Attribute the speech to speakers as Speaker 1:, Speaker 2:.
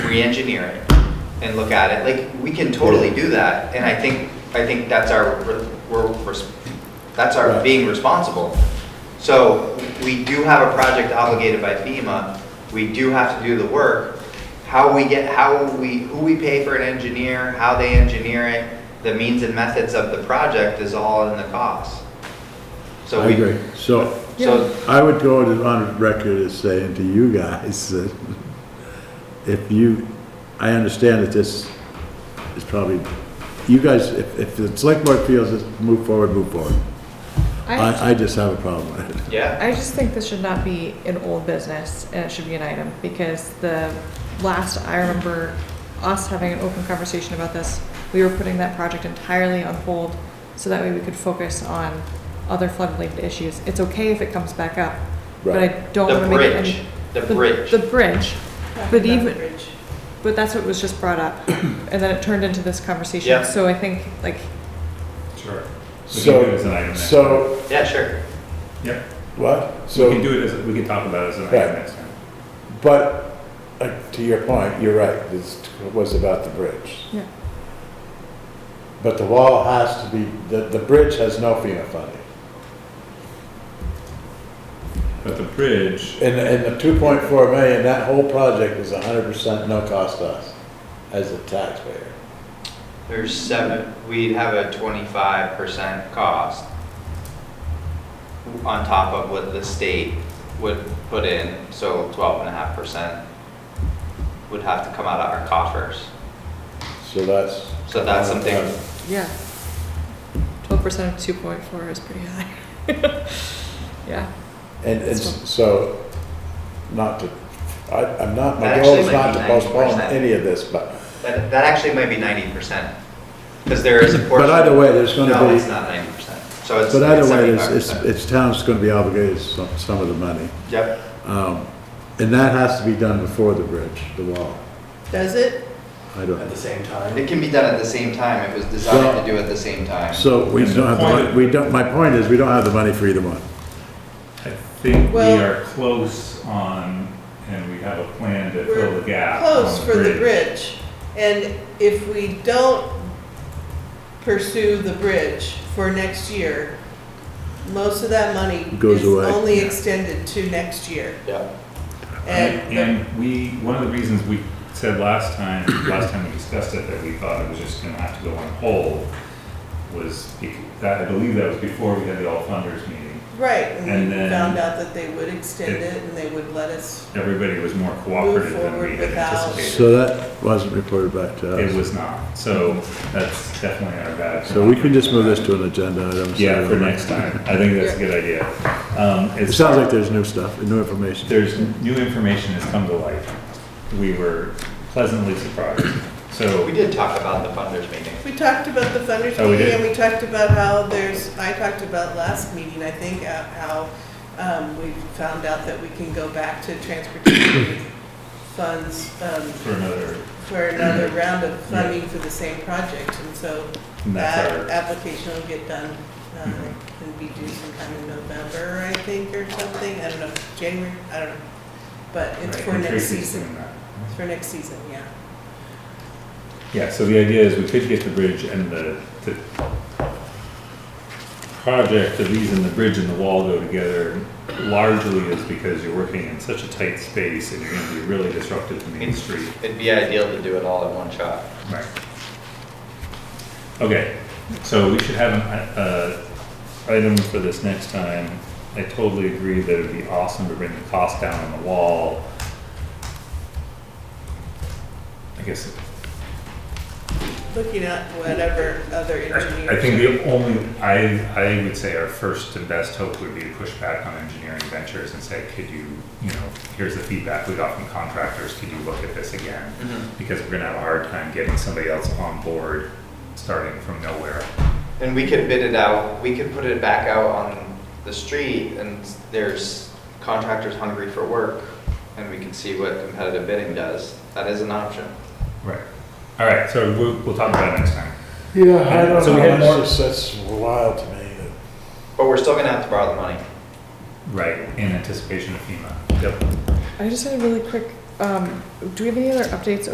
Speaker 1: re-engineer it and look at it, like, we can totally do that, and I think, I think that's our, we're, res- that's our
Speaker 2: Right.
Speaker 1: being responsible. So, we do have a project obligated by FEMA, we do have to do the work. How we get, how we, who we pay for an engineer, how they engineer it, the means and methods of the project is all in the cost. So
Speaker 2: I
Speaker 1: we-
Speaker 2: agree. So
Speaker 1: So,
Speaker 2: I would go to- on record as saying to you guys that if you, I understand that this is probably, you guys, if, if the select board feels it's move forward, move forward.
Speaker 3: I,
Speaker 2: I, I just have a problem with it.
Speaker 1: yeah.
Speaker 3: I just think this should not be an old business, and it should be an item, because the last, I remember us having an open conversation about this, we were putting that project entirely on hold, so that way we could focus on other flood-related issues. It's okay if it comes back up, but I don't
Speaker 1: The
Speaker 3: wanna make it.
Speaker 1: bridge,
Speaker 3: any-
Speaker 1: the bridge.
Speaker 3: The bridge, But even-
Speaker 4: Bridge.
Speaker 3: but that's what was just brought up, and then it turned into this conversation.
Speaker 1: Yeah.
Speaker 3: So I think, like,
Speaker 5: Sure. We can do it as an item
Speaker 2: So,
Speaker 5: next
Speaker 2: so,
Speaker 1: Yeah, sure.
Speaker 5: Yep,
Speaker 2: what?
Speaker 5: we can
Speaker 2: So,
Speaker 5: do it as, we can talk about it as an
Speaker 2: Right.
Speaker 5: item next time.
Speaker 2: but, uh, to your point, you're right, this was about the bridge.
Speaker 3: Yeah.
Speaker 2: But the wall has to be, the, the bridge has no FEMA funding.
Speaker 5: But the bridge,
Speaker 2: And, and the two point four million, that whole project is hundred percent no cost to us as a taxpayer.
Speaker 1: There's seven, we have a twenty-five percent cost on top of what the state would put in, so twelve and a half percent would have to come out of our coffers.
Speaker 2: So that's.
Speaker 1: So that's something-
Speaker 3: yeah, twelve percent of two point four is pretty high. Yeah.
Speaker 2: And it's, so, not to, I, I'm not, my
Speaker 1: That
Speaker 2: goal
Speaker 1: actually
Speaker 2: is
Speaker 1: might
Speaker 2: not
Speaker 1: be
Speaker 2: to postpone
Speaker 1: 90%.
Speaker 2: any of this, but,
Speaker 1: That, that actually might be ninety percent, because there is a portion.
Speaker 2: but either way, there's gonna
Speaker 1: No,
Speaker 2: be,
Speaker 1: it's not ninety percent, so it's
Speaker 2: but either way, it's,
Speaker 1: seventy-five
Speaker 2: it's,
Speaker 1: percent.
Speaker 2: it's town's gonna be obligated some, some of the money.
Speaker 1: Yep,
Speaker 2: Um, and that has to be done before the bridge, the wall.
Speaker 4: Does it?
Speaker 2: I don't,
Speaker 6: at the same time.
Speaker 1: it can be done at the same time, it was designed
Speaker 2: Well-
Speaker 1: to do at the same time.
Speaker 2: so we
Speaker 5: And the
Speaker 2: don't have, the
Speaker 5: point-
Speaker 2: mon- we don't, my point is, we don't have the money for either one.
Speaker 5: I think we
Speaker 4: Well-
Speaker 5: are close on, and we have a plan to fill
Speaker 4: We're
Speaker 5: the gap. on
Speaker 4: close for the bridge. And if we don't pursue the bridge for next year, most of that money
Speaker 2: Goes
Speaker 4: is
Speaker 2: away.
Speaker 4: only extended to next year.
Speaker 1: Yeah,
Speaker 4: And the-
Speaker 5: And we, one of the reasons we said last time, last time we discussed it, that we thought it was just gonna have to go on hold, was, bec- that, I believe that was before we had the all funders meeting.
Speaker 4: Right, and
Speaker 5: And
Speaker 4: we
Speaker 5: then-
Speaker 4: found out that they would extend
Speaker 5: It-
Speaker 4: it and they would let us,
Speaker 5: Everybody was more cooperative than
Speaker 4: forward
Speaker 5: we had
Speaker 4: without-
Speaker 5: anticipated.
Speaker 2: So that wasn't reported back to us.
Speaker 5: It was not, so that's definitely our bad.
Speaker 2: So we can just move this to an agenda item. so-
Speaker 5: Yeah, for next time. I think that's a good idea. Um,
Speaker 2: It sounds like there's new stuff, new information.
Speaker 5: there's new information has come to light. We were pleasantly surprised. So
Speaker 1: we did talk about the funders meeting.
Speaker 4: we talked about the funders
Speaker 5: Oh, we
Speaker 4: meeting
Speaker 5: did?
Speaker 4: and we talked about how there's, I talked about last meeting, I think, uh, how um, we found out that we can go back to transportation funds um,
Speaker 5: for another,
Speaker 4: for another round of funding for the same project. And so
Speaker 5: and that's
Speaker 4: that
Speaker 5: our, Mm-hmm.
Speaker 4: application will get done, uh, and be due sometime in November, I think, or something. I don't know, January, I don't know. But it's
Speaker 5: right,
Speaker 4: for
Speaker 5: and
Speaker 4: next
Speaker 5: Tracy's
Speaker 4: season.
Speaker 5: doing that.
Speaker 4: It's for next season, yeah.
Speaker 5: Yeah, so the idea is we could get the bridge and the, the project, the reason the bridge and the wall go together largely is because you're working in such a tight space and you're gonna be really disruptive to Main Street.
Speaker 1: It'd be ideal to do it all in one shot.
Speaker 5: Right. Okay, so we should have an, uh, item for this next time. I totally agree that it'd be awesome to bring the cost down on the wall. I guess,
Speaker 4: Looking at whatever other engineers.
Speaker 5: I think the only, I, I would say our first and best hope would be to push back on engineering ventures and say, could you, you know, here's the feedback we got from contractors, could you look at this again? Because we're gonna have a hard time getting somebody else on board, starting from nowhere.
Speaker 1: And we could bid it out, we could put it back out on the street and there's contractors hungry for work and we can see what competitive bidding does. That is an option.
Speaker 5: Right. All right, so we'll, we'll talk about it next time.
Speaker 2: Yeah, I don't
Speaker 5: So we
Speaker 2: know,
Speaker 5: had more-
Speaker 2: that's, that's wild to me.
Speaker 1: But we're still gonna have to borrow the money.
Speaker 5: Right, in anticipation of FEMA. Yep.
Speaker 3: I just had a really quick, um, do we have any other updates